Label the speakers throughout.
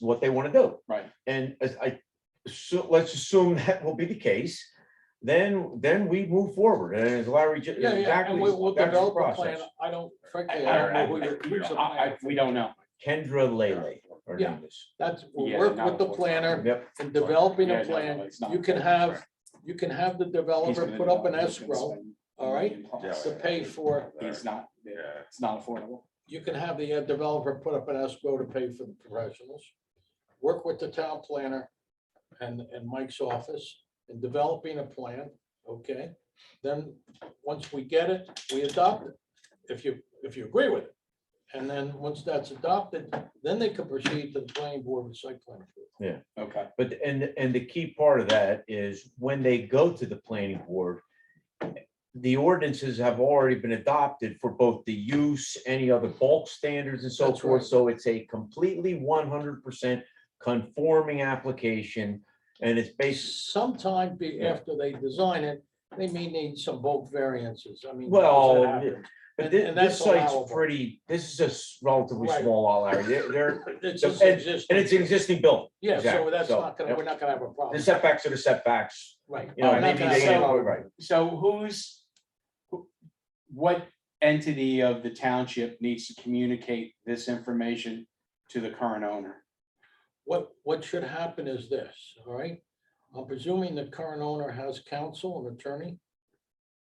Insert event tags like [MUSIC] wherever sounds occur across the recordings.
Speaker 1: what they want to do.
Speaker 2: Right.
Speaker 1: And as I, so let's assume that will be the case, then, then we move forward. And as Larry, ju-
Speaker 3: Yeah, yeah,
Speaker 1: exactly,
Speaker 3: and we- we'll
Speaker 1: that's the
Speaker 3: develop a plan.
Speaker 1: process.
Speaker 3: I don't,
Speaker 2: I-
Speaker 3: frankly, I don't
Speaker 2: I-
Speaker 3: know who your
Speaker 2: I-
Speaker 3: use of
Speaker 2: I- I-
Speaker 3: plan.
Speaker 2: We don't know.
Speaker 1: Kendra Lele Hernandez.
Speaker 3: That's, we'll
Speaker 2: Yeah,
Speaker 3: work
Speaker 2: not
Speaker 3: with the
Speaker 2: what-
Speaker 3: planner
Speaker 1: Yep,
Speaker 3: and developing
Speaker 2: Yeah,
Speaker 3: a
Speaker 2: no, no,
Speaker 3: plan.
Speaker 2: it's not.
Speaker 3: You can have, you can have the
Speaker 2: He's
Speaker 3: developer
Speaker 2: gonna
Speaker 3: put up an
Speaker 2: develop, he's gonna
Speaker 3: escrow,
Speaker 2: spend
Speaker 3: all right,
Speaker 2: million plus.
Speaker 3: to pay for,
Speaker 2: It's not,
Speaker 4: Yeah.
Speaker 2: it's not affordable.
Speaker 3: you can have the uh, developer put up an escrow to pay for the professionals. Work with the town planner and, and Mike's office in developing a plan, okay? Then, once we get it, we adopt it, if you, if you agree with it. And then, once that's adopted, then they can proceed to the planning board with site plan. approval.
Speaker 2: Okay,
Speaker 1: but, and, and the key part of that is when they go to the planning board, the ordinances have already been adopted for both the use, any other bulk standards and so
Speaker 3: That's
Speaker 1: forth.
Speaker 3: right.
Speaker 1: So it's a completely one hundred percent conforming application. And it's based
Speaker 3: Sometime be,
Speaker 1: Yeah.
Speaker 3: after they design it, they may need some bulk variances, I mean.
Speaker 1: Well,
Speaker 3: that happens.
Speaker 1: But
Speaker 3: And-
Speaker 1: thi-
Speaker 3: and
Speaker 1: this
Speaker 3: that's
Speaker 1: site's
Speaker 3: allowable.
Speaker 1: pretty, this is a s- relatively
Speaker 3: Right.
Speaker 1: small lot, Larry. They're, they're-
Speaker 3: It's just
Speaker 1: and-
Speaker 3: existing.
Speaker 1: and it's an existing building.
Speaker 3: Yeah, so
Speaker 1: exactly,
Speaker 3: that's
Speaker 1: so,
Speaker 3: not gonna,
Speaker 1: yep.
Speaker 3: we're not gonna have a
Speaker 1: The
Speaker 3: problem,
Speaker 1: setbacks are the setbacks,
Speaker 3: right?
Speaker 1: you know,
Speaker 2: Oh,
Speaker 1: maybe
Speaker 2: not
Speaker 1: they,
Speaker 2: gonna-
Speaker 1: right,
Speaker 2: so who's, who- what entity of the township needs to communicate this information to the current owner?
Speaker 3: What, what should happen is this, all right? I'm presuming the current owner has counsel, an attorney,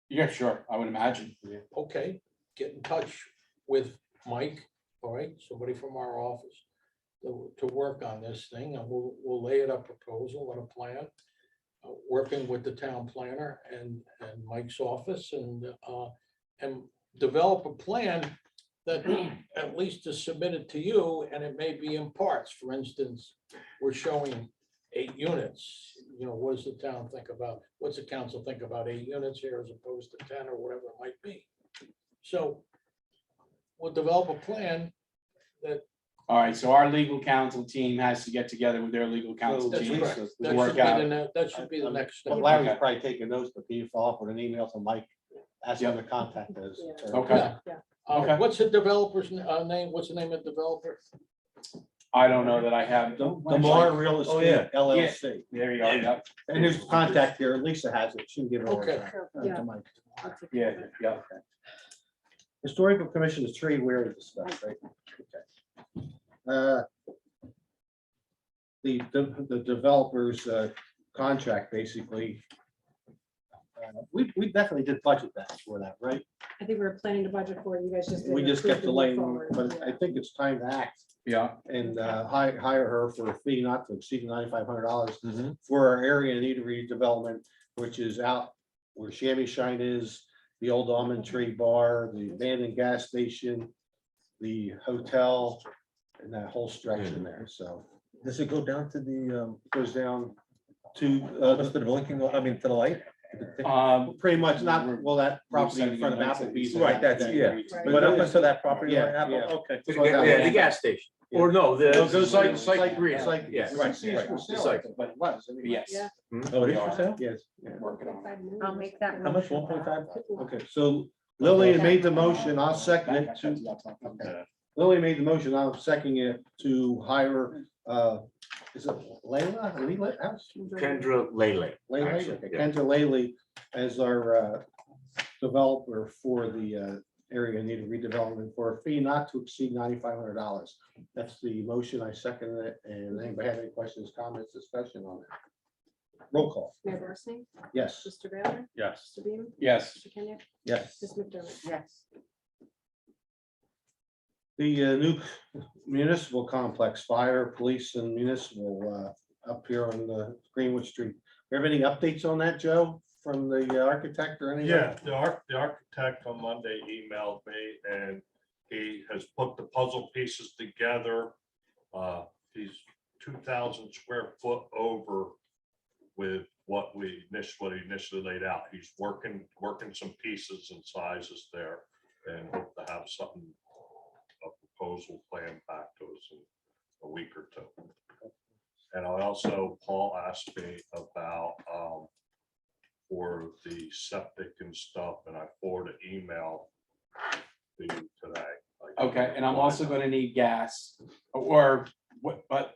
Speaker 2: Yeah, sure, I would imagine. Yeah.
Speaker 3: okay, get in touch with Mike, all right, somebody from our office. To, to work on this thing, and we'll, we'll lay it a proposal and a plan. uh, Working with the town planner and, and Mike's office and, uh, and develop a plan. That [CLEARS THROAT] at least is submitted to you, and it may be in parts, for instance, we're showing eight units. You know, what does the town think about, what's the council think about eight units here as opposed to ten or whatever it might be? So we'll develop a plan.
Speaker 2: All right, so our legal counsel team has to get together with their legal counsel
Speaker 3: That's
Speaker 2: team.
Speaker 3: correct. That
Speaker 2: Work
Speaker 3: should be
Speaker 2: out.
Speaker 3: the, ne- that should be the next
Speaker 5: But
Speaker 3: step.
Speaker 5: Larry's probably taking notes, but he follow up with an email to Mike, asking him to contact us.
Speaker 2: Okay.
Speaker 3: Yeah. Uh,
Speaker 2: Okay.
Speaker 3: What's the developer's n- uh, name? What's the name of the developer?
Speaker 2: I don't know that I have.
Speaker 5: Demar Real
Speaker 1: Oh, yeah.
Speaker 5: Estate LLC,
Speaker 2: There you go. Yep.
Speaker 5: and there's contact here, Lisa has it, she can give it over
Speaker 3: Okay.
Speaker 5: to- uh,
Speaker 6: Yeah.
Speaker 5: to Mike.
Speaker 6: I'll take
Speaker 2: Yeah,
Speaker 6: care of it.
Speaker 2: yeah.
Speaker 5: Historical Commission is three, we already discussed, right? Okay. Uh, The, the- the developer's uh, contract, basically. uh, We, we definitely did budget that for that, right?
Speaker 6: I think we were planning to budget for it. You guys just.
Speaker 5: We
Speaker 6: didn't
Speaker 5: just kept
Speaker 6: approve to
Speaker 5: delaying,
Speaker 6: move forward.
Speaker 5: but I
Speaker 6: Yeah.
Speaker 5: think it's time to act.
Speaker 2: Yeah.
Speaker 5: and uh, hi- hire her for a fee not to exceed ninety-five hundred dollars
Speaker 1: Mhm.
Speaker 5: for our area in need of redevelopment, which is out where Shammy Shine is, the old almond tree bar, the abandoned gas station, the hotel, and that whole stretch in there, so.
Speaker 7: Does it go down to the, um,
Speaker 5: it Goes down
Speaker 7: to, uh, just the blinking, I mean, to the light?
Speaker 2: Um,
Speaker 5: pretty much not, well, that property in front of Applebee's.
Speaker 7: Right, that's- yeah.
Speaker 6: Right.
Speaker 7: But up until that property line,
Speaker 5: Yeah,
Speaker 7: Apple,
Speaker 5: yeah.
Speaker 7: okay.
Speaker 1: Yeah, the gas station, or no, the.
Speaker 5: No, go
Speaker 2: site-
Speaker 5: site
Speaker 2: green.
Speaker 5: Like,
Speaker 1: Yeah,
Speaker 5: yes,
Speaker 1: right, right, the site.
Speaker 5: but it was. anyway.
Speaker 2: Yes.
Speaker 6: Yeah.
Speaker 7: Oh, it is for sale?
Speaker 5: Yes. yeah.
Speaker 2: Working on it.
Speaker 6: I'll make that.
Speaker 7: How much,
Speaker 6: motion.
Speaker 7: 1.5?
Speaker 5: Okay, so Lillian made the motion, I'll second it to Lily made the motion, I'm seconding it to hire, uh, is it Layla? Leela? How's-
Speaker 1: Kendra Lele.
Speaker 5: Layla?
Speaker 1: Actually,
Speaker 5: Okay,
Speaker 1: yeah.
Speaker 5: Kendra Laley as our, uh, developer for the, uh, area in need of redevelopment for a fee not to exceed ninety-five hundred dollars. That's the motion, I second it, and anybody have any questions, comments, discussion on it? Roll call,
Speaker 6: Mayor Barsney?
Speaker 5: yes.
Speaker 6: Mr. Baylor?
Speaker 7: Yes.
Speaker 6: Mr. Beam?
Speaker 2: Yes.
Speaker 6: Mr. Kenya?
Speaker 7: Yes.
Speaker 6: Ms. McDermott?
Speaker 8: Yes.
Speaker 5: The uh, new municipal complex, fire, police and municipal uh, up here on the Greenwood Street. You have any updates on that, Joe, from the uh, architect or anything?
Speaker 4: Yeah, the arch, the architect on Monday emailed me and he has put the puzzle pieces together. Uh, he's two thousand square foot over with what we initially, initially laid out. He's working, working some pieces and sizes there and hope to have something, a proposal plan back to us in a week or two. And I also, Paul asked me about, um, for the septic and stuff, and I forwarded an email to you today.
Speaker 2: Okay, and I'm also gonna need gas or what, but